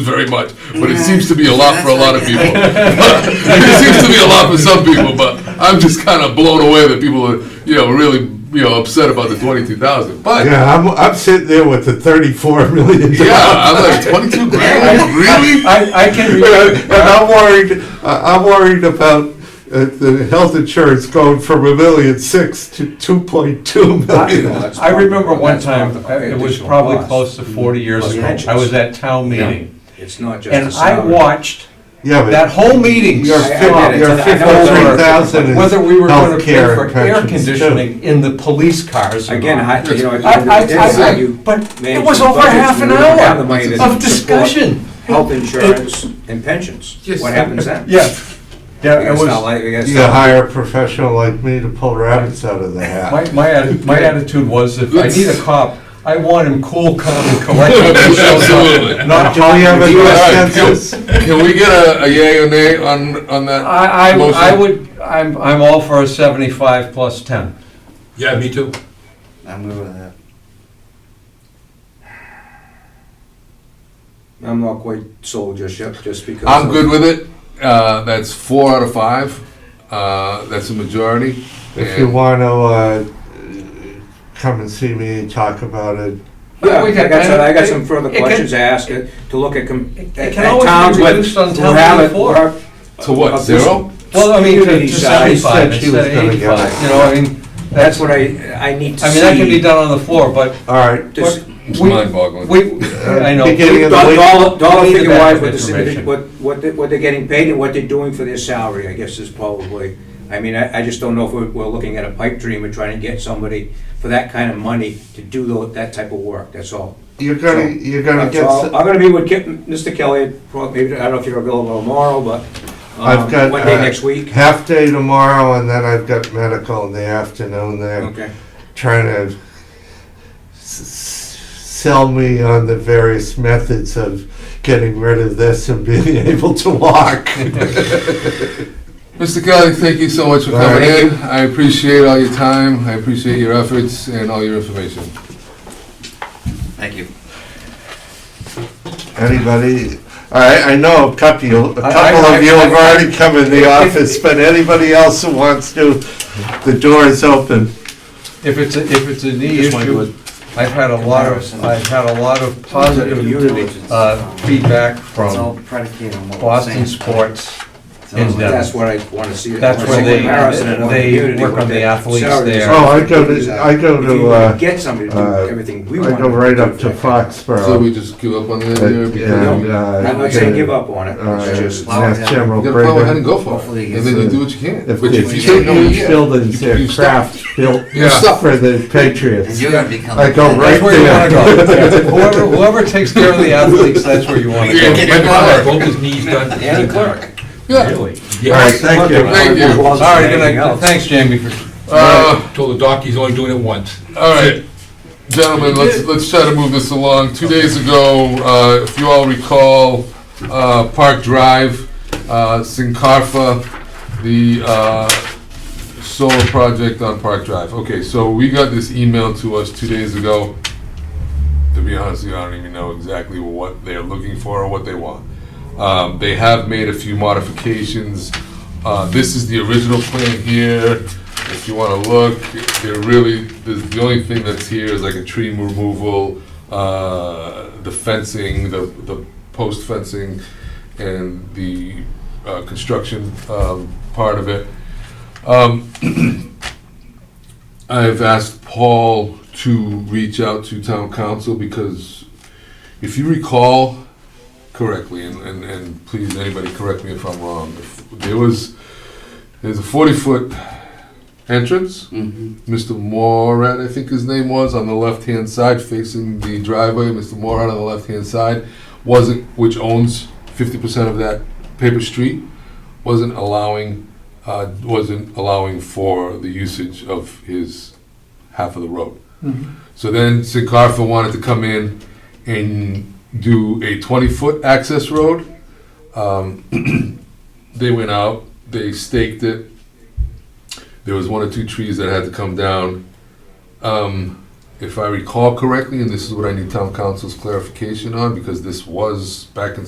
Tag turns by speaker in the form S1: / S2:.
S1: very much, but it
S2: Yeah.
S1: seems to be a lot for a lot of
S2: That's
S1: people.
S2: okay.
S1: It seems to be a lot for some people, but I'm just kind of blown away that people are, you know, really, you know, upset about the twenty-two thousand. But,
S3: Yeah, I'm, I'm sitting there with the 34 million.
S1: yeah, I'm like, twenty-two grand, really?
S4: I, I can
S3: And
S4: remember,
S3: I'm worried, I- I'm worried about uh, the health insurance going from a million six to 2.2 million.
S4: I remember one
S5: That's
S4: time,
S5: probably-
S4: it was
S5: additional
S4: probably
S5: cost.
S4: close to forty years
S5: Plus
S4: ago,
S5: pensions.
S4: I was at town meeting,
S5: It's not just
S4: and
S5: the
S4: I
S5: salary.
S4: watched
S3: Yeah, but
S4: that whole meeting.
S3: Your
S5: I- I
S3: fif-
S5: get it.
S3: your
S5: I know it's
S3: $53,000 is
S4: Whether we were gonna pay
S3: healthcare
S4: for
S3: and
S4: air
S3: pensions, too.
S4: conditioning in the police cars. or
S5: Again,
S4: not.
S5: I, you know.
S4: I, I,
S5: it's just
S4: I,
S5: that
S4: I,
S5: you
S4: but it
S5: manage
S4: was
S5: the
S4: over
S5: budget,
S4: half an
S5: you don't have the money
S4: hour
S5: to
S4: of
S5: support
S4: discussion.
S5: Health insurance and pensions.
S1: Yes.
S5: What happens then?
S4: Yeah, yeah, it
S5: It's not
S4: was,
S5: like, it's
S3: You gotta
S5: not,
S3: hire a professional like me to pull rabbits out of the hat.
S4: my, my, atti- my attitude was, if I need a cop, I want him cool, calm, and collected. when he shows up,
S1: Absolutely.
S4: Not
S3: Do we have
S1: All
S3: a
S4: hot.
S3: U.S.
S1: right, can-
S3: census?
S1: Can we get a a yay or nay on, on that?
S4: I,
S1: motion?
S4: I, I would, I'm, I'm all for a seventy-five plus ten.
S1: Yeah, me too.
S2: I'm good with that.
S5: I'm not quite sold just yet, just because.
S1: I'm
S5: of-
S1: good with it. Uh, that's four out of five. Uh, that's a majority.
S3: If you
S1: And-
S3: wanna, uh, come and see me and talk about it,
S5: Yeah,
S4: We
S5: I
S4: can-
S5: got some, I got some
S4: it
S5: further
S4: can-
S5: questions to ask, uh, to look at, com-
S4: It- it
S5: at
S4: can
S5: at
S4: always be
S5: towns
S4: reduced on
S5: with, who
S4: town
S5: have it,
S4: before.
S5: who are-
S1: To what,
S5: of this-
S1: zero?
S4: Well, I mean, to- to
S5: Community size.
S4: seventy-five
S3: She said
S4: instead
S3: she
S4: of
S3: was gonna get
S4: eighty-five,
S3: it.
S4: you know, I mean,
S5: That's what I, I need to
S4: I
S5: see.
S4: mean, that can be done on the floor, but
S3: alright.
S5: Just-
S1: It's
S4: We-
S1: mind-boggling.
S4: we, I know.
S3: Beginning of the
S5: Dollar,
S3: week.
S5: dollar- dollar
S4: We need the
S5: figure wise,
S4: benefit
S5: what the,
S4: information.
S5: what, what, they- what they're getting paid and what they're doing for their salary, I guess is probably, I mean, I, I just don't know if we're, we're looking at a pipe dream and trying to get somebody for that kind of money to do tho- that type of work, that's all.
S3: You're gonna, you're gonna
S5: That's
S3: get,
S5: all.
S3: s-
S5: I'm gonna be with Ke- Mr. Kelly, prob- maybe, I don't know if you're available tomorrow, but,
S3: I've got.
S5: um, one day
S3: uh,
S5: next week.
S3: Half day tomorrow, and then I've got medical in the afternoon there,
S5: Okay,
S3: trying to s- s- sell me on the various methods of getting rid of this and being able to walk.
S1: Mr. Kelly, thank you so much for
S3: All right.
S1: coming in. I appreciate all your time. I appreciate your efforts and all your information.
S2: Thank you.
S3: Anybody, I, I know a couple, you- a
S4: I-
S3: couple
S4: I-
S3: of you have
S4: I- I-
S3: already come in the office, but anybody else who wants to, the door is open.
S4: If it's, a- if it's a knee
S5: Just wanted to-
S4: issue, I've had a lot of, I've had a lot of positive, uh, feedback
S2: It's all
S4: from
S2: predicated on what we're saying.
S4: Boston sports.
S2: It's all-
S4: in depth.
S5: that's what I wanna see. I
S4: That's
S5: wanna
S4: where
S5: see
S4: they-
S5: comparison and what
S4: they
S5: community,
S4: work
S5: what
S4: on the
S5: their
S4: athletes
S5: salaries
S4: there.
S5: are.
S3: Oh, I go to- I go
S5: If
S3: to,
S5: you
S3: uh,
S5: Get somebody to do
S3: uh,
S5: everything we want.
S3: I go right up to
S1: So
S3: Foxborough.
S1: we just give up on the idea?
S3: Uh,
S1: because
S3: and,
S1: we-
S3: uh,
S5: I'm not saying give up on it,
S3: uh,
S5: it's just.
S3: Mass General
S1: You gotta plow ahead
S3: Brigham.
S1: and go for
S2: Hopefully
S1: it.
S2: he
S1: And then
S2: gets
S1: you
S3: it.
S1: do what you can.
S3: If
S1: But if
S3: there's
S1: you
S3: two
S1: don't know you
S3: huge
S1: can't,
S3: buildings,
S1: you- you
S3: they're
S1: stop.
S3: craft built
S1: You stop.
S3: for the
S2: And
S3: Patriots.
S2: you're gonna become.
S3: I go right
S4: That's where you wanna
S3: there.
S4: go. Whoever, whoever takes care of the athletes, that's where you wanna
S1: Yeah,
S4: go.
S1: get the clerk.
S6: Both his knees done. at the
S5: And
S6: same
S5: the
S6: time.
S5: clerk.
S1: Yeah.
S6: Really?
S3: All right,
S6: Yeah.
S3: thank you.
S1: Thank you.
S4: All right, good night, thanks, Jamie, for
S1: Uh,
S6: Told the doc he's only doing it once.
S1: All right, gentlemen, let's, let's try to move this along. Two days ago, uh, if you all recall, uh, Park Drive, uh, Sincarfa, the uh, solar project on Park Drive. Okay, so we got this email to us two days ago. To be honest, with you, I don't even know exactly what they're looking for or what they want. Um, They have made a few modifications. Uh, This is the original plan here. If you want to look, they're really, the the only thing that's here is like a tree removal, uh, the fencing, the the post fencing, and the uh, construction um, part of it. Um, I've asked Paul to reach out to town council because if you recall correctly, and, and, and please, anybody correct me if I'm wrong, if there was, there's a 40-foot entrance.
S2: Mhm.
S1: Mr. Morat, I think his name was, on the left-hand side facing the driveway, Mr. Morat on the left-hand side, wasn't, which owns 50% of that paper street, wasn't allowing, uh, wasn't allowing for the usage of his half of the road. So then Sincarfa wanted to come in and do a 20-foot access road. Um, They went out, they staked it. There was one or two trees that had to come down. Um, If I recall correctly, and this is what I need town council's clarification on, because this was back in